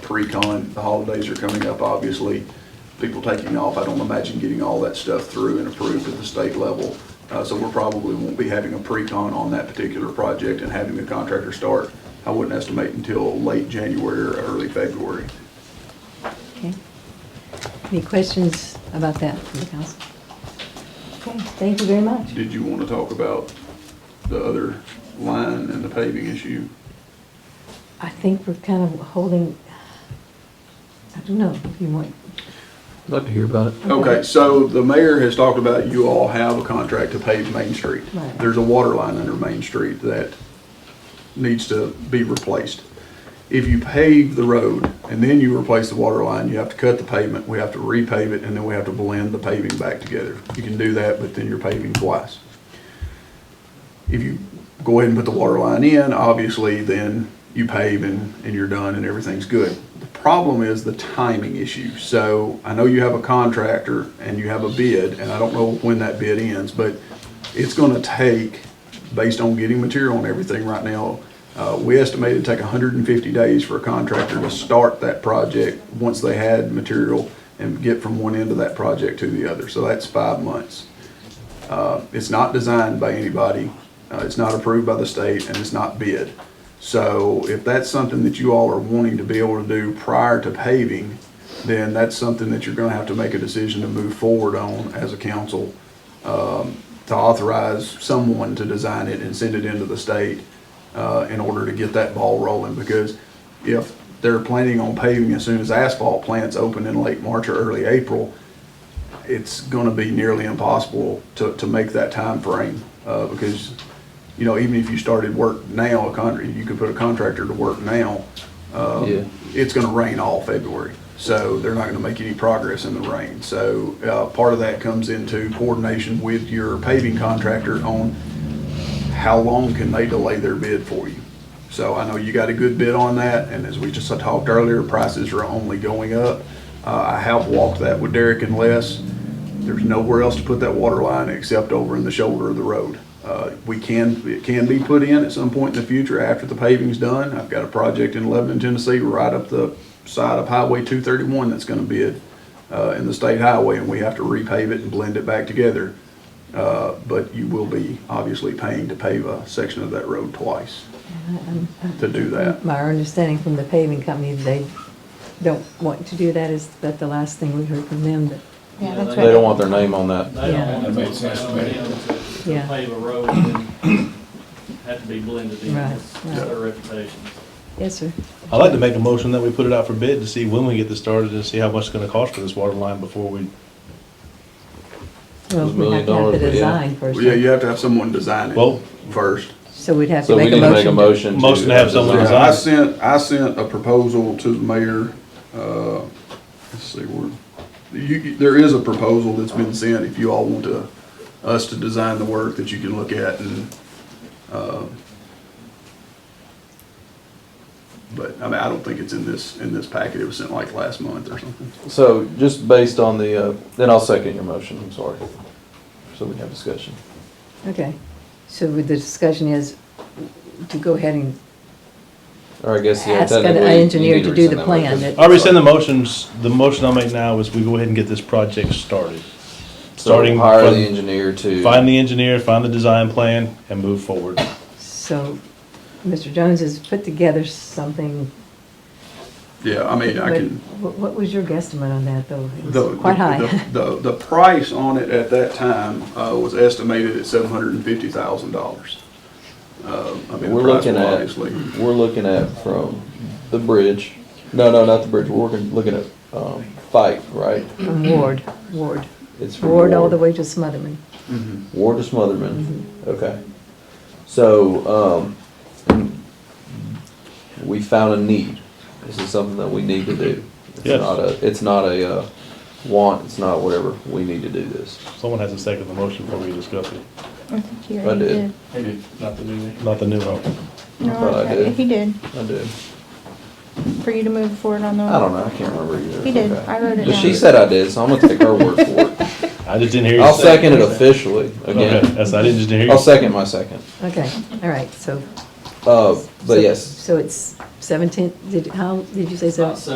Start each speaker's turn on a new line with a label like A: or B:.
A: pre-con, the holidays are coming up, obviously. People taking off, I don't imagine getting all that stuff through and approved at the state level. Uh, so we're probably won't be having a pre-con on that particular project and having the contractor start. I wouldn't estimate until late January or early February.
B: Okay. Any questions about that from the council? Okay, thank you very much.
A: Did you want to talk about the other line and the paving issue?
B: I think we're kind of holding, I don't know if you want,
C: Love to hear about it.
A: Okay, so the mayor has talked about you all have a contract to pave Main Street.
B: Right.
A: There's a water line under Main Street that needs to be replaced. If you pave the road and then you replace the water line, you have to cut the pavement, we have to repave it, and then we have to blend the paving back together. You can do that, but then you're paving twice. If you go ahead and put the water line in, obviously, then you pave and, and you're done and everything's good. The problem is the timing issue. So I know you have a contractor and you have a bid, and I don't know when that bid ends, but it's gonna take, based on getting material and everything right now, uh, we estimate it'd take hundred and fifty days for a contractor to start that project once they had material and get from one end of that project to the other. So that's five months. Uh, It's not designed by anybody, uh, it's not approved by the state, and it's not bid. So if that's something that you all are wanting to be able to do prior to paving, then that's something that you're gonna have to make a decision to move forward on as a council, um, to authorize someone to design it and send it into the state uh, in order to get that ball rolling, because if they're planning on paving as soon as asphalt plants open in late March or early April, it's going to be nearly impossible to, to make that time frame uh, because, you know, even if you started work now, a con, you could put a contractor to work now, uh,
C: Yeah.
A: it's going to rain all February. So they're not going to make any progress in the rain. So uh, part of that comes into coordination with your paving contractor on how long can they delay their bid for you? So I know you got a good bid on that, and as we just talked earlier, prices are only going up. Uh, I have walked that with Derek and Les. There's nowhere else to put that water line except over in the shoulder of the road. Uh, we can, it can be put in at some point in the future after the paving's done. I've got a project in Lebanon, Tennessee, right up the side of Highway two thirty-one that's gonna bid, uh, in the state highway, and we have to repave it and blend it back together. Uh, but you will be obviously paying to pave a section of that road twice to do that.
B: my understanding from the paving company, they don't want to do that, is that the last thing we heard from them, but,
D: Yeah,
E: that's
D: that's
C: They don't
D: right.
C: want their name on that.
E: They
B: Yeah.
E: don't want
F: That makes
E: to
F: sense to
E: allow
F: me.
E: them to-
B: Yeah.
E: to pave a road and have to be blended in.
B: Right,
E: It's
B: right.
E: their reputation.
B: yes, sir.
G: I'd like to make a motion that we put it out for bid to see when we get this started and see how much it's gonna cost for this water line before we,
B: Well,
C: It's a
B: we
C: million
B: have to have the
C: dollars, but yeah.
B: design
A: Well,
B: first,
A: Yeah, you have to have someone design
G: Well-
A: it first.
B: so we'd have to
C: So we
B: make
C: need
B: a
C: to make a
B: motion.
C: motion.
G: Motion to have someone
A: Yeah,
G: design.
A: I sent, I sent a proposal to the mayor, uh, let's see, where, you, you- there is a proposal that's been sent, if you all want to, us to design the work that you can look at and, uh, but, I mean, I don't think it's in this, in this packet, it was sent like last month or something.
C: So just based on the, uh, then I'll second your motion, I'm sorry. So we can have discussion.
B: Okay, so the discussion is to go ahead and
C: Or I guess, yeah,
B: ask an
C: technically. you
B: engineer
C: need
B: to do the
C: rescind that motion.
B: plan. that-
G: I rescind the motions, the motion I'll make now is we go ahead and get this project started.
C: So
G: Starting
C: Hire the
G: from,
C: engineer to.
G: find the engineer, find the design plan, and move forward.
B: So, Mr. Jones has put together something.
A: Yeah, I mean, I
B: but
A: can.
B: wh- What was your guesstimate on that, though? It was
A: The-
B: Quite
A: the-
B: high.
A: The, the- the price on it at that time uh, was estimated at seven hundred and fifty thousand dollars. Uh,
C: We're looking at, we're looking at from the bridge, no, no, not the bridge, we're working- looking at, um, Fike, right?
B: From Ward, Ward.
C: It's from
B: Ward all the way to Smotherman.
C: Ward to Smotherman,
D: Mm-hmm.
C: okay. So, um, we found a need. This is something that we need to do. It's
G: Yes.
C: not a, it's not a, uh, want, it's not whatever, we need to do this.
G: Someone has to second the motion before we discuss it,
D: He
C: I did,
E: Not the new.
G: not the new one.
C: I thought I
D: No,
C: did.
D: he did,
C: I did.
D: for you to move forward on the.
C: I don't know, I can't remember either.
D: He did,
C: Okay.
D: I wrote it
C: But
D: down.
C: she said I did, so I'm gonna take her word for it.
G: I just didn't hear you
C: I'll
G: say.
C: second it officially,
G: Okay,
C: again.
G: that's, I didn't just hear you.
C: I'll second my second.
B: Okay, all right, so.
C: Uh,
B: so-
C: but yes.
B: So it's seventeen, did, how, did you say
E: It's
B: seven?
E: not